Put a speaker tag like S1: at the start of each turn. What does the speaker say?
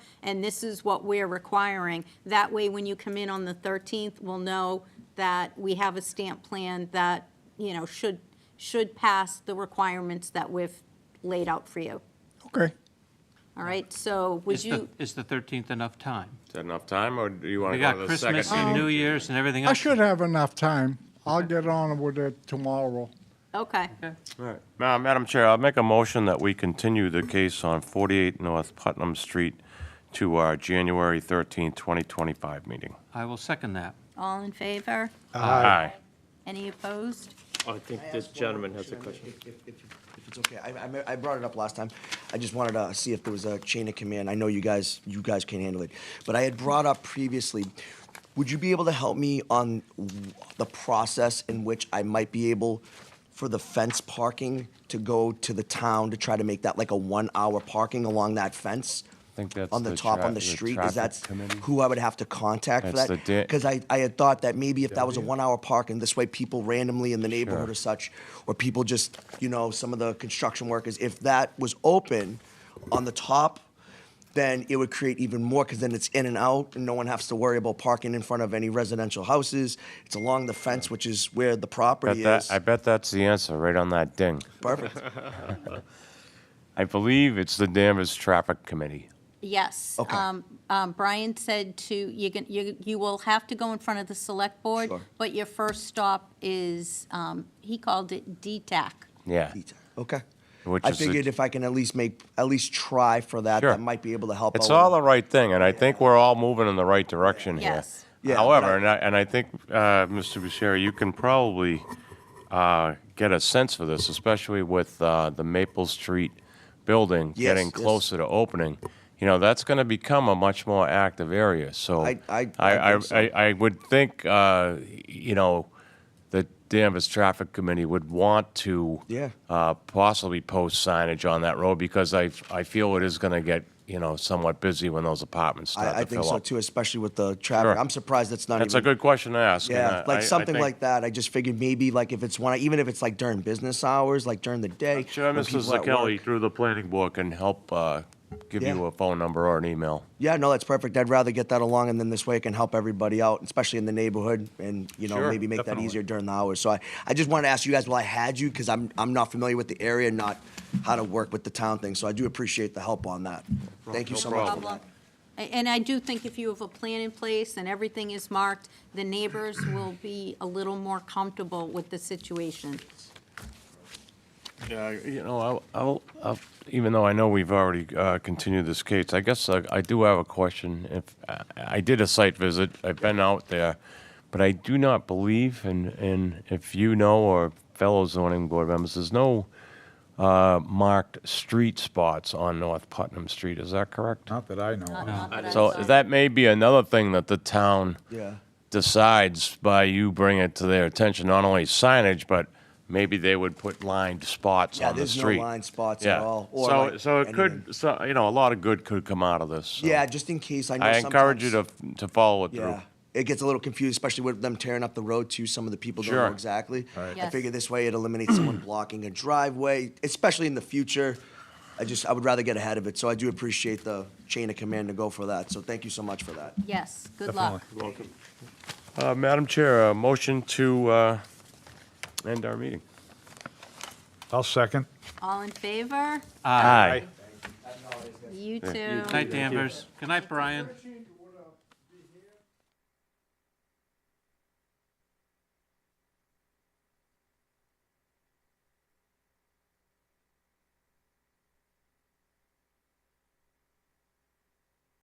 S1: and this is what we're requiring. That way, when you come in on the 13th, we'll know that we have a stamp plan that, you know, should, should pass the requirements that we've laid out for you.
S2: Okay.
S1: All right, so would
S3: Is the,
S1: you,
S3: is the 13th enough time?
S4: Is that enough time, or do you want
S3: We
S4: to go
S3: got
S4: to the second?
S3: Christmas and New Year's and everything else.
S2: I should have enough time. I'll get on with it tomorrow.
S1: okay,
S4: Ma- Madam Chair, I'll make a motion that we continue the case on 48 North Putnam Street to our January 13, 2025 meeting.
S3: I will second that.
S1: all in favor?
S4: Aye.
S1: Any opposed?
S5: I think this
S6: ask one more
S5: gentleman has a
S6: Chairman,
S5: question.
S6: If, if- if you- if it's okay, I, I me- I brought it up last time. I just wanted to see if there was a chain of command. I know you guys, you guys can handle it. But I had brought up previously, would you be able to help me on w- the process in which I might be able for the fence parking to go to the town to try to make that like a one-hour parking along that fence?
S4: I think that's
S6: On the
S4: the
S6: top,
S4: tra-
S6: on the
S4: the
S6: street,
S4: traffic
S6: is that
S4: committee?
S6: who I would have to contact for
S4: That's
S6: that?
S4: the da-
S6: Because I, I had thought that maybe if that was a one-hour park, and this way people randomly in the neighborhood
S4: Sure.
S6: or such, or people just, you know, some of the construction workers, if that was open on the top, then it would create even more, because then it's in and out, and no one has to worry about parking in front of any residential houses. It's along the fence, which is where the
S4: Bet
S6: property
S4: that-
S6: is.
S4: I bet that's the answer, right on that ding.
S6: Perfect.
S4: I believe it's the Danvers Traffic Committee.
S1: Yes.
S6: Okay.
S1: Um, um, Brian said to, you can, you, you will have to go in front of the select board,
S6: Sure.
S1: but your first stop is, um, he called it DTAC.
S4: Yeah.
S6: Okay.
S4: Which
S6: I
S4: is a-
S6: figured if I can at least make, at least try for that,
S4: Sure.
S6: that might be able to help.
S4: It's
S6: out with
S4: all
S6: it.
S4: the right thing, and I think we're all moving in the right direction here.
S1: Yes.
S6: Yeah, but
S4: However,
S6: I-
S4: and I, and I think, uh, Mr. Bucieri, you can probably uh, get a sense for this, especially with uh, the Maple Street building
S6: Yes,
S4: getting
S6: yes.
S4: closer to opening. You know, that's going to become a much more active area, so.
S6: I- I- I
S4: I,
S6: think so.
S4: I, I would think, uh, you know, the Danvers Traffic Committee would want to
S6: Yeah.
S4: uh, possibly post signage on that road because I, I feel it is going to get, you know, somewhat busy when those apartments start
S6: I, I
S4: to
S6: think
S4: fill
S6: so
S4: up.
S6: too, especially with the traffic.
S4: Sure.
S6: I'm surprised that's not
S4: That's a
S6: even.
S4: good question to ask. and
S6: Yeah,
S4: I- I- I
S6: like something
S4: think-
S6: like that. I just figured maybe like if it's one, even if it's like during business hours, like during the day.
S4: Sure,
S6: when
S4: Mrs.
S6: people at
S4: Kelly,
S6: work-
S4: through the planning board, can help uh, give
S6: Yeah.
S4: you a phone number or an email.
S6: Yeah, no, that's perfect. I'd rather get that along and then this way it can help everybody out, especially in the neighborhood and, you know,
S4: Sure,
S6: maybe make
S4: definitely.
S6: that easier during the hours. So I, I just wanted to ask you guys while I had you, because I'm, I'm not familiar with the area and not how to work with the town thing. So I do appreciate the help on that. Thank you
S4: no
S6: so much. for
S1: problem.
S6: that.
S1: A- And I do think if you have a plan in place and everything is marked, the neighbors will be a little more comfortable with the situation.
S4: Yeah, you know, I'll- I'll, I'll, even though I know we've already uh, continued this case, I guess uh, I do have a question. If, I- I did a site visit, I've been out there, but I do not believe, and, and if you know or fellow zoning board members, there's no uh, marked street spots on North Putnam Street, is that correct?
S2: Not that I know
S1: Not-
S2: of.
S1: not that I'm
S4: So
S1: sorry.
S4: that may be another thing that the town
S6: Yeah.
S4: decides by you bringing it to their attention, not only signage, but maybe they would put lined spots
S6: Yeah,
S4: on the
S6: there's no
S4: street.
S6: line spots at all, or
S4: so,
S6: like
S4: so it
S6: anything.
S4: could, so, you know, a lot of good could come out of this. so
S6: Yeah, just in case. I know
S4: I encourage
S6: sometimes-
S4: you to, to follow it through.
S6: Yeah, it gets a little confused, especially with them tearing up the road too. Some of the people don't
S4: Sure.
S6: know exactly. I
S1: Yes.
S6: figure this way it eliminates someone blocking a driveway, especially in the future. I just, I would rather get ahead of it. So I do appreciate the chain of command to go for that. So thank you so much for that.
S1: Yes, good luck.
S4: Uh, Madam Chair, a motion to, uh, end our meeting.
S2: I'll second.
S1: All in favor?
S4: Aye.
S1: You too.
S3: Good night, Danvers. Good night, Brian.